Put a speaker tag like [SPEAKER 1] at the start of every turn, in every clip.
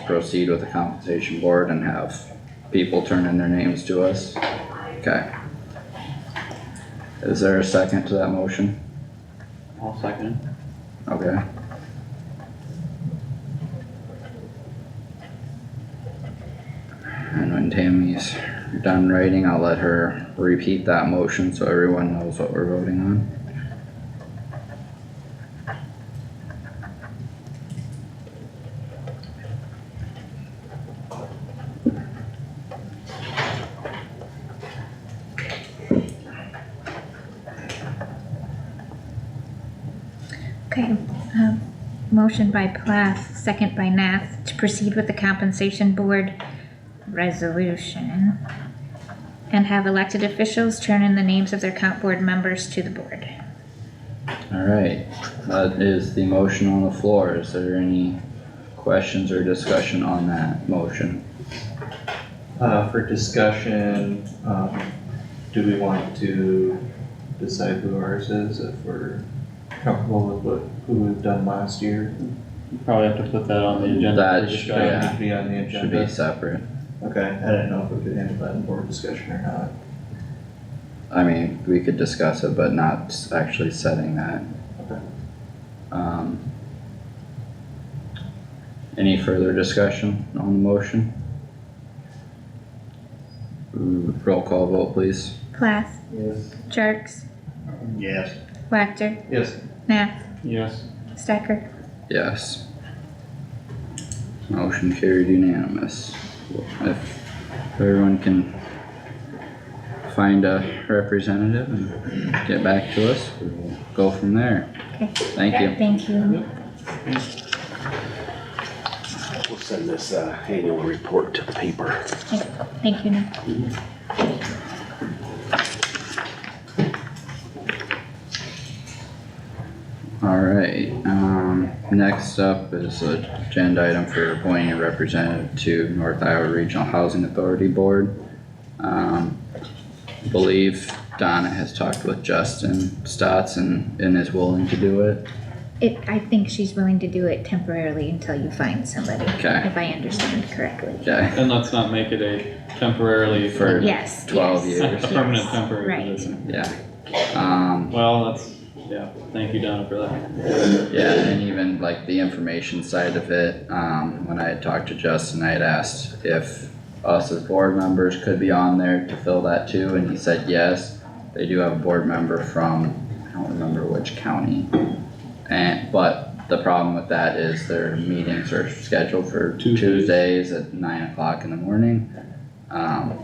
[SPEAKER 1] proceed with the compensation board and have people turn in their names to us? Okay. Is there a second to that motion?
[SPEAKER 2] I'll second it.
[SPEAKER 1] Okay. And when Tammy's done writing, I'll let her repeat that motion so everyone knows what we're voting on.
[SPEAKER 3] Okay, um, motion by Plath, second by Nath, to proceed with the compensation board resolution. And have elected officials turn in the names of their comp board members to the board.
[SPEAKER 1] Alright, that is the motion on the floor. Is there any questions or discussion on that motion?
[SPEAKER 4] Uh, for discussion, um, do we want to decide who ours is if we're comfortable with what, who we've done last year?
[SPEAKER 2] You Probably have to put that on the agenda.
[SPEAKER 1] That
[SPEAKER 2] for
[SPEAKER 1] should-
[SPEAKER 4] That
[SPEAKER 2] discussion.
[SPEAKER 1] Oh, yeah.
[SPEAKER 4] Should be on the
[SPEAKER 1] Should be
[SPEAKER 4] agenda.
[SPEAKER 1] separate.
[SPEAKER 4] Okay, I didn't know if we could handle that in board discussion or not.
[SPEAKER 1] I mean, we could discuss it, but not s- actually setting that.
[SPEAKER 4] Okay.
[SPEAKER 1] Um. Any further discussion on the motion? Ooh, Mm, Roll call vote please.
[SPEAKER 3] Plath,
[SPEAKER 4] Yes.
[SPEAKER 3] Jerks,
[SPEAKER 5] Yes.
[SPEAKER 3] Wactor,
[SPEAKER 4] Yes,
[SPEAKER 3] Nath,
[SPEAKER 2] Yes,
[SPEAKER 3] Stecker.
[SPEAKER 1] Yes. Motion carried unanimous. If everyone can find a representative and get back to us, we'll go from there.
[SPEAKER 3] Okay,
[SPEAKER 1] Thank you.
[SPEAKER 3] thank you.
[SPEAKER 5] We'll send this, uh, annual report to the paper.
[SPEAKER 3] Thank you, Nath.
[SPEAKER 1] Alright, um, next up is a agenda item for appointing a representative to North Iowa Regional Housing Authority Board. Um, I believe Donna has talked with Justin Stotts and, and is willing to do it.
[SPEAKER 3] It, I think she's willing to do it temporarily until you find somebody,
[SPEAKER 1] Okay.
[SPEAKER 3] if I understand correctly.
[SPEAKER 1] Okay,
[SPEAKER 2] and let's not make it a temporarily
[SPEAKER 1] For-
[SPEAKER 2] for
[SPEAKER 3] Yes,
[SPEAKER 1] Twelve
[SPEAKER 3] yes.
[SPEAKER 1] years.
[SPEAKER 2] a permanent
[SPEAKER 3] Right.
[SPEAKER 2] temporary position.
[SPEAKER 1] yeah, um,
[SPEAKER 2] Well, that's, yeah, thank you Donna for that.
[SPEAKER 1] yeah, and even like the information side of it, um, when I had talked to Justin, I had asked if us as board members could be on there to fill that too, and he said yes. They do have a board member from, I don't remember which county. And, but the problem with that is their meetings are scheduled for
[SPEAKER 2] Tuesdays.
[SPEAKER 1] Tuesdays at nine o'clock in the morning. Um,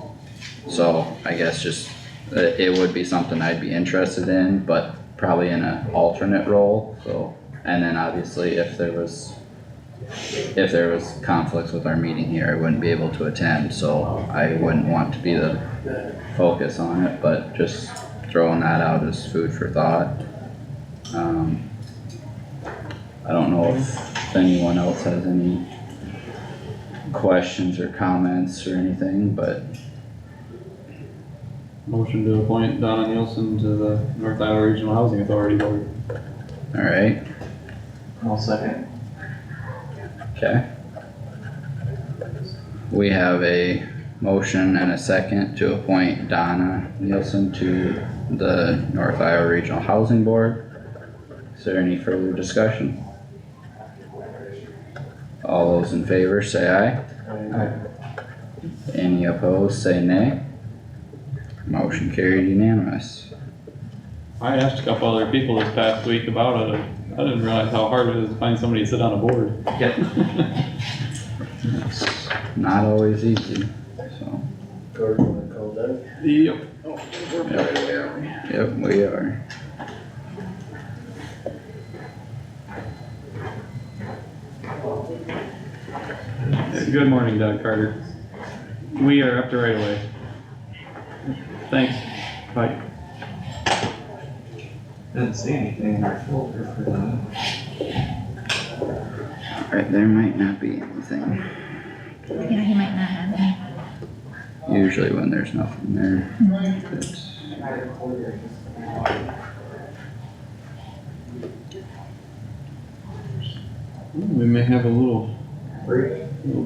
[SPEAKER 1] so I guess just, it, it would be something I'd be interested in, but probably in an alternate role, so. And then obviously if there was, if there was conflicts with our meeting here, I wouldn't be able to attend, so I wouldn't want to be the focus on it, but just throwing that out as food for thought. Um, I don't know if anyone else has any questions or comments or anything, but
[SPEAKER 2] Motion to appoint Donna Nielsen to the North Iowa Regional Housing Authority Board.
[SPEAKER 1] alright,
[SPEAKER 4] I'll second.
[SPEAKER 1] okay. We have a motion and a second to appoint Donna Nielsen to the North Iowa Regional Housing Board. Is there any further discussion? All those in favor say aye. Any opposed, say nay. Motion carried unanimous.
[SPEAKER 2] I asked a couple other people this past week about it, I didn't realize how hard it is to find somebody to sit on a board.
[SPEAKER 1] Not always easy, so,
[SPEAKER 2] Yep.
[SPEAKER 1] yep, we are.
[SPEAKER 2] Good morning, Doug Carter. We are up to right away. Thanks, bye.
[SPEAKER 4] Didn't see anything in our folder for that.
[SPEAKER 1] Alright, there might not be anything,
[SPEAKER 3] Yeah, he might not have any.
[SPEAKER 1] usually when there's nothing there. it's-
[SPEAKER 2] We may have a little, little